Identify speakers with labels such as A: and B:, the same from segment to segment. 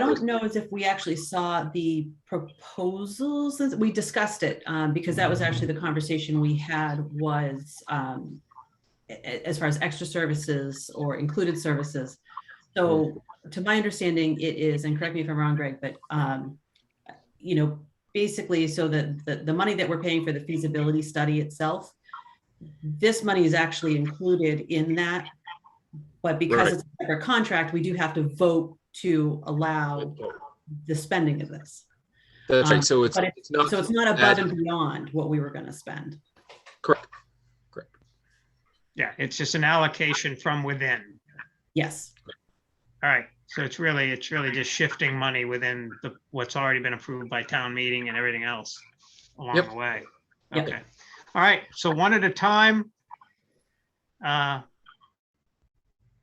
A: don't know as if we actually saw the proposals. as- We discussed it um, because that was actually the conversation we had was um, a- a- as far as extra services or included services. So to my understanding, it is, and correct me if I'm wrong, Greg, but um, you know, basically so that the, the money that we're paying for the feasibility study itself, this money is actually included in that. But because
B: Right.
A: it's a separate contract, we do have to vote to allow the spending of this.
B: That's
A: Um,
B: right. So it's,
A: but it-
B: it's not,
A: So it's not above and beyond what we were gonna spend.
C: Yeah, it's just an allocation from within.
A: Yes,
C: All right, so it's really, it's really just shifting money within the, what's already been approved by town meeting and everything else along
B: Yep.
C: the way.
A: Yep.
C: Okay, all right, so one at a time. Uh,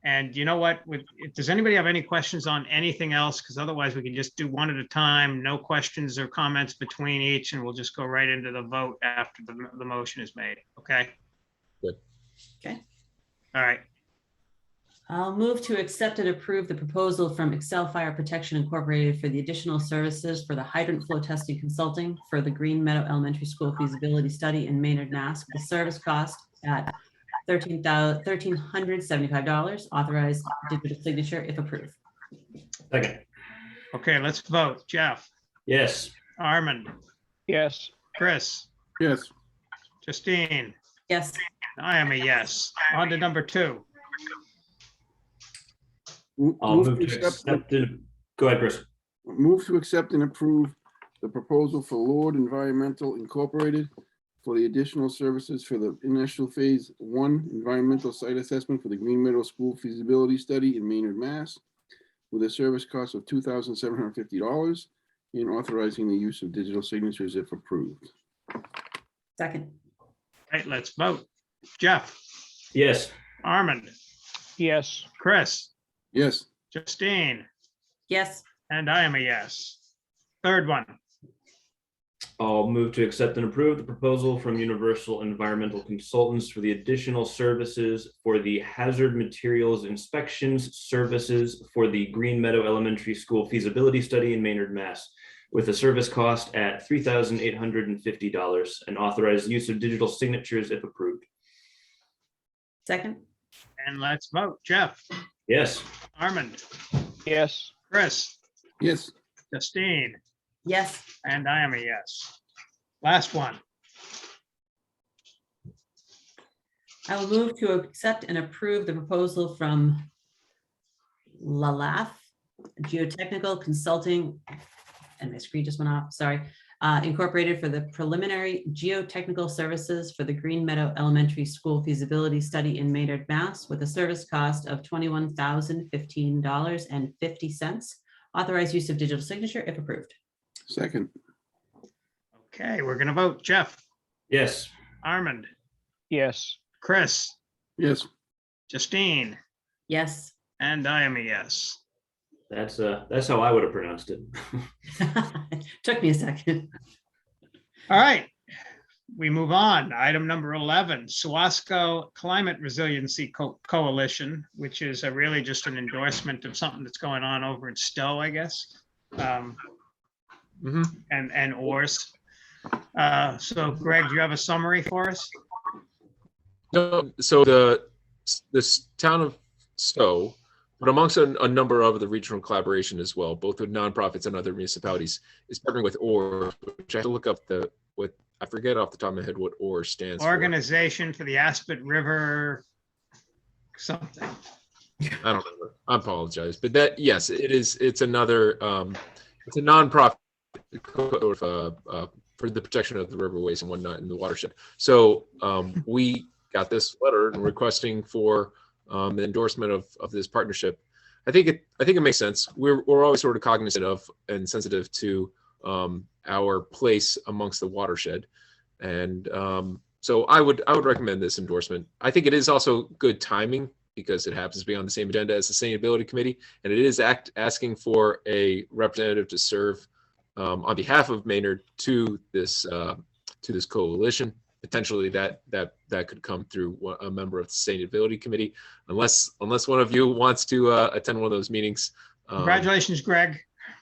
C: And you know what, With- if, does anybody have any questions on anything else? Because otherwise we can just do one at a time, no questions or comments between each, and we'll just go right into the vote after the, the motion is made, okay?
B: Good.
A: Okay.
C: All right,
A: I'll move to accept and approve the proposal from Excel Fire Protection Incorporated for the additional services for the hydrant flow testing consulting for the Green Meadow Elementary School feasibility study in Maynard, Mass. The service cost at thirteen thousand, thirteen hundred seventy-five dollars, authorized digital signature if approved.
D: Second,
C: okay, let's vote. Jeff?
D: yes,
C: Armand,
E: yes,
C: Chris,
F: yes,
C: Justine,
A: Yes,
C: I am a yes. On to number two.
F: Mo-
D: I'll
F: Move
D: move
F: to
D: to
F: accept,
D: accept, and- go ahead, Chris.
F: move to accept and approve the proposal for Lord Environmental Incorporated for the additional services for the initial phase one environmental site assessment for the Green Meadow School feasibility study in Maynard, Mass. With a service cost of two thousand seven hundred fifty dollars and authorizing the use of digital signatures if approved.
A: second,
C: All right, let's vote. Jeff,
D: Yes,
C: Armand,
E: yes,
C: Chris,
F: Yes,
C: Justine,
A: yes,
C: and I am a yes. Third one.
D: I'll move to accept and approve the proposal from Universal Environmental Consultants for the additional services for the hazard materials inspections services for the Green Meadow Elementary School feasibility study in Maynard, Mass. With a service cost at three thousand eight hundred and fifty dollars and authorized use of digital signatures if approved.
A: second,
C: And let's vote. Jeff,
D: Yes,
C: Armand,
E: yes,
C: Chris,
F: yes,
C: Justine,
A: yes,
C: and I am a yes. Last one.
A: I will move to accept and approve the proposal from LaLaF Geotechnical Consulting, and my screen just went off, sorry, uh, Incorporated for the preliminary geotechnical services for the Green Meadow Elementary School feasibility study in Maynard, Mass. With a service cost of twenty-one thousand fifteen dollars and fifty cents. Authorized use of digital signature if approved.
F: second,
C: Okay, we're gonna vote. Jeff,
D: yes,
C: Armand,
E: yes,
C: Chris,
F: yes,
C: Justine,
A: Yes.
C: and I am a yes.
D: that's uh, that's how I would have pronounced it.
A: Took me a second.
C: All right, we move on. Item number 11, Suasco Climate Resiliency Co- Coalition, which is a really just an endorsement of something that's going on over in Stowe, I guess. um,
B: Mhm.
C: And, and Oars. Uh, So Greg, do you have a summary for us?
B: No, so the, this town of Stowe, but amongst a, a number of the regional collaboration as well, both with nonprofits and other municipalities, is partnering with OR, which I have to look up the, what, I forget off the top of my head what OR stands for. I
C: Organization for the Aspet River something.
B: don't remember. I apologize, but that, yes, it is, it's another, um, it's a nonprofit co- uh, uh, for the protection of the riverways and whatnot in the watershed. So um, we got this letter and requesting for um, the endorsement of, of this partnership. I think it I think it makes sense. We're we're always sort of cognizant of and sensitive to um, our place amongst the watershed, and um, so I would I would recommend this endorsement. I think it is also good timing because it happens to be on the same agenda as the sustainability committee, and it is act asking for a representative to serve um, on behalf of Maynard to this uh, to this coalition. Potentially, that that that could come through one- a member of the sustainability committee, unless unless one of you wants to uh, attend one of those meetings. Um,
C: Congratulations, Greg.